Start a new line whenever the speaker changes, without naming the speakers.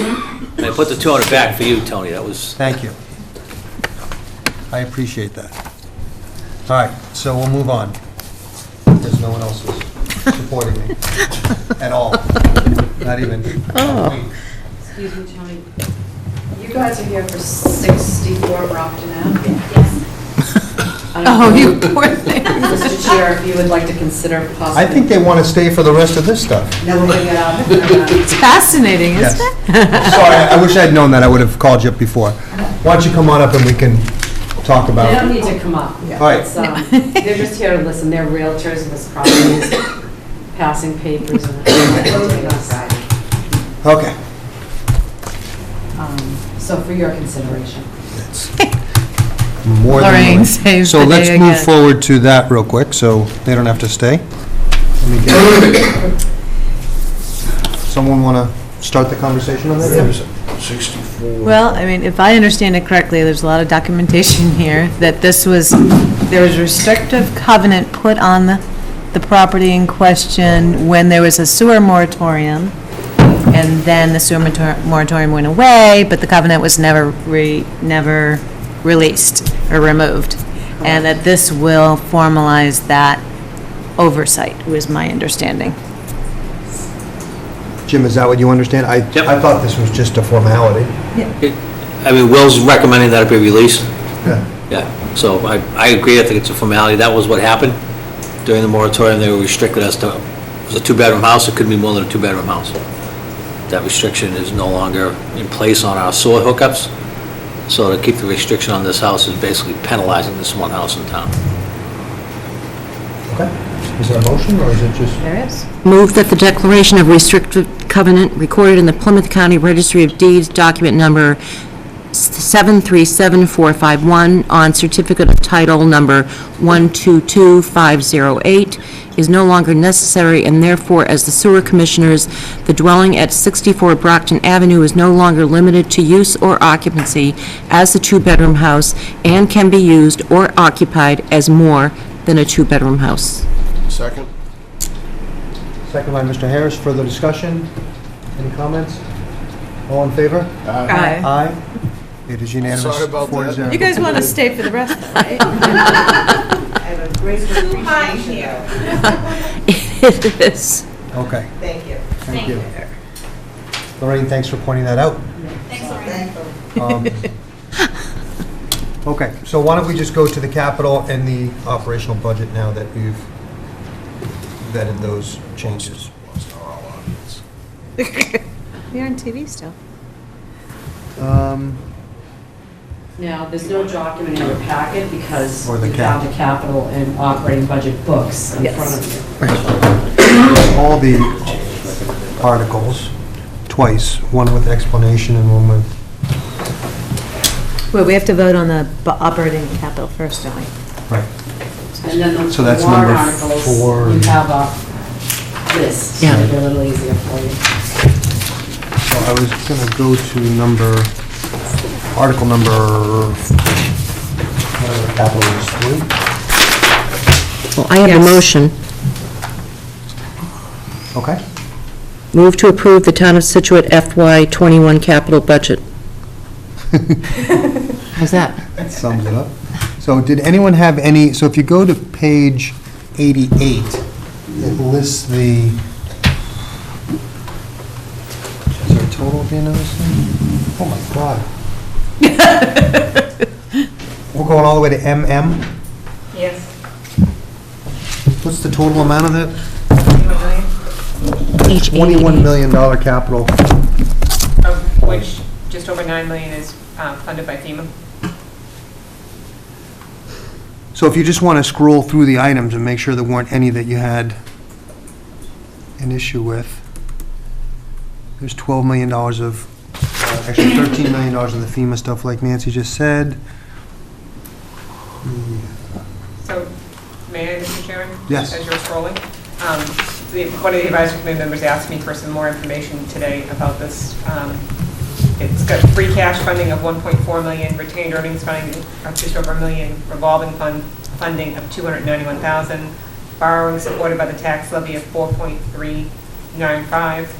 I put the 200 back for you, Tony, that was,
Thank you. I appreciate that. All right, so we'll move on. There's no one else who's supporting me at all, not even.
Excuse me, Tony. You guys are here for 64 Brockton Ave.
Yes,
Oh,
I don't know,
poor thing.
Mr. Chair, if you would like to consider possibly...
I think they want to stay for the rest of this stuff.
Numbering it up. and,
It's fascinating,
Yes.
isn't it?
Sorry, I wish I'd known that, I would have called you up before. Why don't you come on up and we can talk
uh,
about
They don't
it?
need to come up.
All right,
It's, um, They're just here to listen. They're realtors in this property, passing papers and...
okay.
Um, So for your consideration.
More than
Lorraine
willing.
saves the day
So let's move
again.
forward to that real quick, so they don't have to stay. Let me get- Someone want to start the conversation on that?
64.
Well, I mean, if I understand it correctly, there's a lot of documentation here that this was, there was restrictive covenant put on the, the property in question when there was a sewer moratorium. And then the sewer mator- moratorium went away, but the covenant was never re, never released or removed. And that this will formalize that oversight, was my understanding.
Jim, is that what you understand? I,
Yep.
I thought this was just a formality.
I mean, Will's recommending that it be released,
Yeah.
yeah. So I, I agree, I think it's a formality, that was what happened. During the moratorium, they were restricted as to, it was a two-bedroom house, it could be more than a two-bedroom house. That restriction is no longer in place on our sewer hookups, so to keep the restriction on this house is basically penalizing this one house in town.
Okay. Is there a motion, or is it just?
There is.
Move that the declaration of restrictive covenant recorded in the Plymouth County Registry of Deeds, document number 7374451, on certificate of title number 122508, is no longer necessary, and therefore, as the sewer commissioners, the dwelling at 64 Brockton Avenue is no longer limited to use or occupancy as a two-bedroom house, and can be used or occupied as more than a two-bedroom house.
Second?
Second by Mr. Harris, further discussion? Any comments? All in favor? Aye. It is unanimous.
Sorry about
four to
that.
zero.
You guys want to stay for the rest, right?
I have a great appreciation. here.
It is.
Okay,
Thank you.
thank you. Lorraine, thanks for pointing that out.
thanks, Lorraine.
Um, Okay, so why don't we just go to the capital and the operational budget now that we've vetted those changes?
You're on TV still.
Um,
Now, there's no document in your packet because
Or
you
the cap.
have the capital and operating budget books in front of you.
All the articles, twice, one with explanation and one with
Well, we have to vote on the bu- operating capital first, don't we?
Right.
And then
So
the
that's
warrant
number
articles,
four.
you have a list, so
Yeah.
they're a little easier for you.
So I was going to go to number, article number, uh, whatever the capital is, three?
Well, I have a motion.
Okay.
Move to approve the Town of Situate FY21 capital budget. How's that?
That sums it up. So did anyone have any, so if you go to page 88, it lists the, is there a total at the end of this thing? Oh my God. We're going all the way to MM?
Yes.
What's the total amount of that?
Page 88.
$21 million capital.
Of which, just over 9 million is um, funded by FEMA.
So if you just want to scroll through the items and make sure there weren't any that you had an issue with, there's $12 million of, uh, actually $13 million of the FEMA stuff like Nancy just said.
So, may I, Mr. Chairman?
Yes.
As you're scrolling, um, the- one of the advisory committee members asked me for some more information today about this. Um, It's got free cash funding of 1.4 million, retained earnings funding of just over a million, revolving fund, funding of 291,000, borrowing supported by the tax levy of 4.395,